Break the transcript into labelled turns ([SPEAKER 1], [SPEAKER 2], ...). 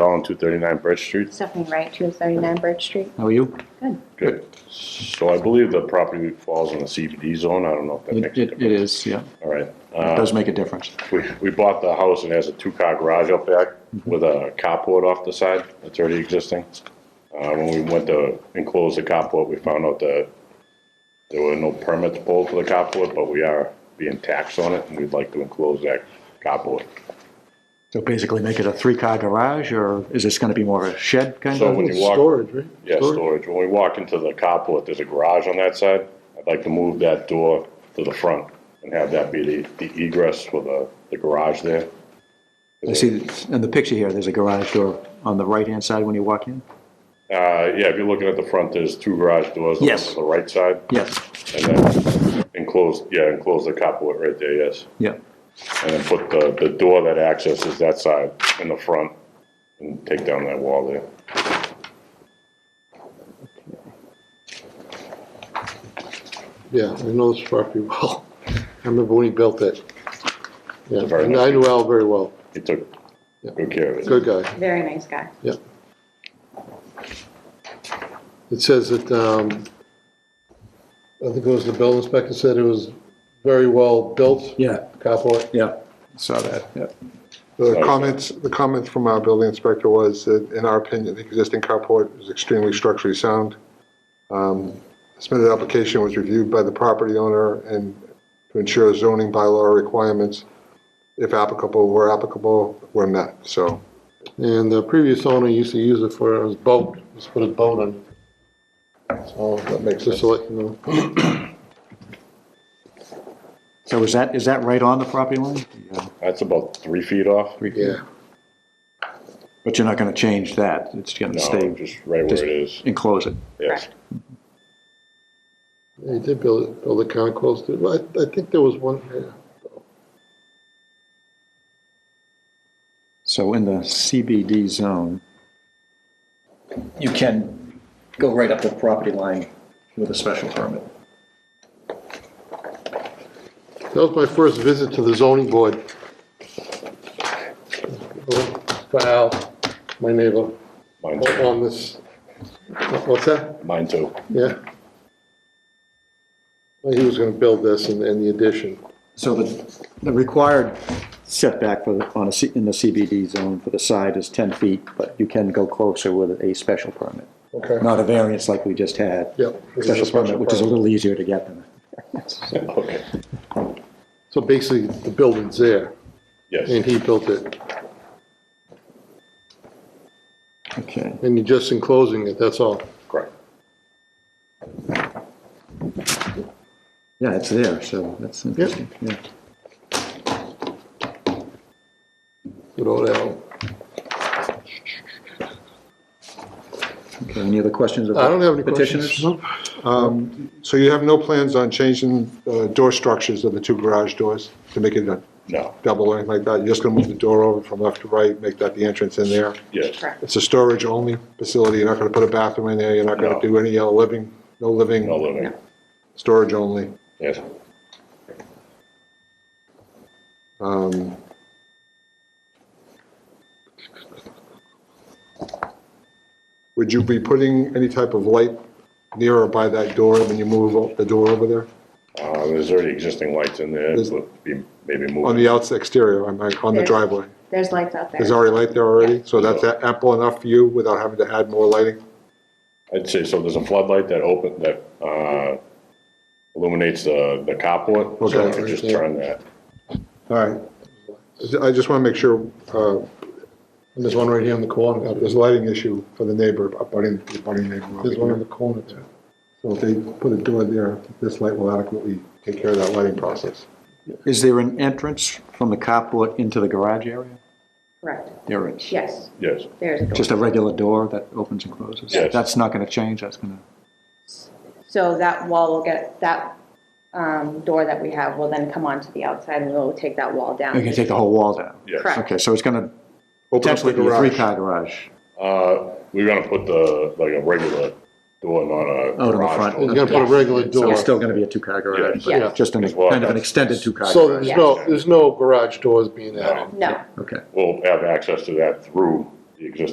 [SPEAKER 1] all on 239 Birch Street.
[SPEAKER 2] Stephanie Wright, 239 Birch Street.
[SPEAKER 3] How are you?
[SPEAKER 2] Good.
[SPEAKER 1] Good. So I believe the property falls in the CBD zone. I don't know if that
[SPEAKER 3] It,
[SPEAKER 1] makes a
[SPEAKER 3] it
[SPEAKER 1] difference.
[SPEAKER 3] it is, yeah.
[SPEAKER 1] All right.
[SPEAKER 3] It
[SPEAKER 1] Uh,
[SPEAKER 3] does make a difference.
[SPEAKER 1] we, we bought the house and it has a two-car garage up back with a carport off the side that's already existing. Uh, when we went to enclose the carport, we found out that there were no permits pulled for the carport, but we are being taxed on it and we'd like to enclose that carport.
[SPEAKER 3] So basically make it a three-car garage, or is this gonna be more of a shed kind
[SPEAKER 1] So
[SPEAKER 3] of?
[SPEAKER 1] when you walk.
[SPEAKER 4] Storage, right?
[SPEAKER 1] Yeah, storage. When we walk into the carport, there's a garage on that side. I'd like to move that door to the front and have that be the, the egress for the, the garage there.
[SPEAKER 3] I see, in the picture here, there's a garage door on the right-hand side when you walk in?
[SPEAKER 1] Uh, yeah, if you're looking at the front, there's two garage doors. the one
[SPEAKER 3] Yes.
[SPEAKER 1] To the right side
[SPEAKER 3] Yes,
[SPEAKER 1] and then enclose, yeah, enclose the carport right there, yes.
[SPEAKER 3] yeah.
[SPEAKER 1] And then put the, the door that accesses that side in the front and take down that wall there.
[SPEAKER 4] Yeah, I know this property well. I remember when he built it. Yeah,
[SPEAKER 1] very
[SPEAKER 4] and I knew Al very well.
[SPEAKER 1] He took
[SPEAKER 4] Yeah.
[SPEAKER 1] good care of it.
[SPEAKER 4] Good guy,
[SPEAKER 2] Very nice guy.
[SPEAKER 4] yeah. It says that, um, I think it was the building inspector said it was very well built.
[SPEAKER 3] Yeah,
[SPEAKER 4] Carport.
[SPEAKER 3] yeah. Saw that, yeah.
[SPEAKER 5] The
[SPEAKER 1] Okay.
[SPEAKER 5] comments, the comments from our building inspector was that, in our opinion, the existing carport is extremely structurally sound. Um, Submitted application was reviewed by the property owner and to ensure zoning bylaw requirements, if applicable, were applicable, were met, so.
[SPEAKER 4] And the previous owner used to use it for his boat, just put his boat on. So that makes us, let you know,
[SPEAKER 3] So is that, is that right on the property line? Yeah.
[SPEAKER 1] That's about three feet off.
[SPEAKER 3] Three feet.
[SPEAKER 4] yeah.
[SPEAKER 3] But you're not gonna change that, it's gonna
[SPEAKER 1] No,
[SPEAKER 3] stay,
[SPEAKER 1] just right where
[SPEAKER 3] just-
[SPEAKER 1] it is,
[SPEAKER 3] enclose it.
[SPEAKER 1] yes.
[SPEAKER 4] He did build, build a concourse, too. Well, I, I think there was one, yeah.
[SPEAKER 3] So in the CBD zone, you can go right up the property line with a special permit.
[SPEAKER 4] That was my first visit to the zoning board. Wow, my neighbor,
[SPEAKER 1] Mine too.
[SPEAKER 4] on this, what's that?
[SPEAKER 1] Mine too.
[SPEAKER 4] Yeah. Well, He was gonna build this and, and the addition.
[SPEAKER 3] So the, the required setback for, the on a, C- in the CBD zone for the side is 10 feet, but you can go closer with a special permit,
[SPEAKER 4] Okay.
[SPEAKER 3] not a variance like we just had.
[SPEAKER 4] Yep. this is a
[SPEAKER 3] Special permit, which is a
[SPEAKER 4] permit.
[SPEAKER 3] little easier to get than.
[SPEAKER 1] Okay.
[SPEAKER 4] So basically, the building's there, and
[SPEAKER 1] Yes,
[SPEAKER 4] he built it,
[SPEAKER 3] Okay.
[SPEAKER 4] and you're just enclosing it, that's all.
[SPEAKER 1] correct.
[SPEAKER 3] Yeah, it's there, so that's interesting, yeah.
[SPEAKER 4] Good old Al.
[SPEAKER 3] Okay, any other questions? of
[SPEAKER 4] I don't have any
[SPEAKER 3] petitioners?
[SPEAKER 4] questions. No.
[SPEAKER 5] Um, So you have no plans on changing uh, door structures of the two garage doors to make it a
[SPEAKER 1] No,
[SPEAKER 5] double or anything like that? You're just gonna move the door over from left to right, make that the entrance in there?
[SPEAKER 1] yes,
[SPEAKER 2] Correct.
[SPEAKER 5] It's a storage-only facility, you're not gonna put a bathroom in there, you're not
[SPEAKER 1] No.
[SPEAKER 5] gonna do any uh, living, no
[SPEAKER 1] no
[SPEAKER 5] living,
[SPEAKER 1] living,
[SPEAKER 5] storage only.
[SPEAKER 1] yes.
[SPEAKER 5] Um, Would you be putting any type of light near or by that door when you move o- the door over there?
[SPEAKER 1] Uh, there's already existing lights in there,
[SPEAKER 5] There's-
[SPEAKER 1] but be- maybe
[SPEAKER 5] On
[SPEAKER 1] move.
[SPEAKER 5] the outs exterior, on my- on the
[SPEAKER 2] There's-
[SPEAKER 5] driveway?
[SPEAKER 2] There's lights out there.
[SPEAKER 5] There's already light there already, so that's a- ample enough for you without having to add more lighting?
[SPEAKER 1] I'd say, so there's a floodlight that open, that, uh, illuminates the, the carport. So I
[SPEAKER 5] Okay.
[SPEAKER 1] could just turn that.
[SPEAKER 5] All right. I just wanna make sure, uh,
[SPEAKER 4] And there's one right here in the corner,
[SPEAKER 5] there's a lighting issue for the neighbor, abutting, abutting neighbor over
[SPEAKER 4] there's one
[SPEAKER 5] here.
[SPEAKER 4] in the corner there.
[SPEAKER 5] So if they put a door there, this light will adequately take care of that lighting process.
[SPEAKER 3] Is there an entrance from the carport into the garage area?
[SPEAKER 2] Correct.
[SPEAKER 3] There is.
[SPEAKER 2] Yes,
[SPEAKER 1] Yes,
[SPEAKER 2] there's a door.
[SPEAKER 3] Just a regular door that opens and closes?
[SPEAKER 1] Yes.
[SPEAKER 3] That's not going to change, that's going to,
[SPEAKER 2] So that wall will get, that um, door that we have will then come onto the outside and we'll take that wall
[SPEAKER 3] you're going
[SPEAKER 2] down.
[SPEAKER 3] to take the whole wall down?
[SPEAKER 1] yes.
[SPEAKER 2] Correct.
[SPEAKER 3] Okay, so it's going to
[SPEAKER 5] Open up the
[SPEAKER 3] potentially be a
[SPEAKER 5] garage.
[SPEAKER 3] three-car garage.
[SPEAKER 1] Uh, we're gonna put the, like a regular door, not a
[SPEAKER 3] Out in the
[SPEAKER 1] garage
[SPEAKER 3] front.
[SPEAKER 4] You're
[SPEAKER 1] door.
[SPEAKER 4] gonna put a regular
[SPEAKER 3] So
[SPEAKER 4] door.
[SPEAKER 3] it's still going to be a two-car garage,
[SPEAKER 2] Yeah.
[SPEAKER 3] but just an,
[SPEAKER 1] As well,
[SPEAKER 3] kind of an
[SPEAKER 1] that's-
[SPEAKER 3] extended two-car
[SPEAKER 4] So
[SPEAKER 3] garage?
[SPEAKER 4] there's
[SPEAKER 2] Yes.
[SPEAKER 4] no, there's no garage doors being added?
[SPEAKER 2] No.
[SPEAKER 3] Okay.
[SPEAKER 1] We'll have access to that through the existing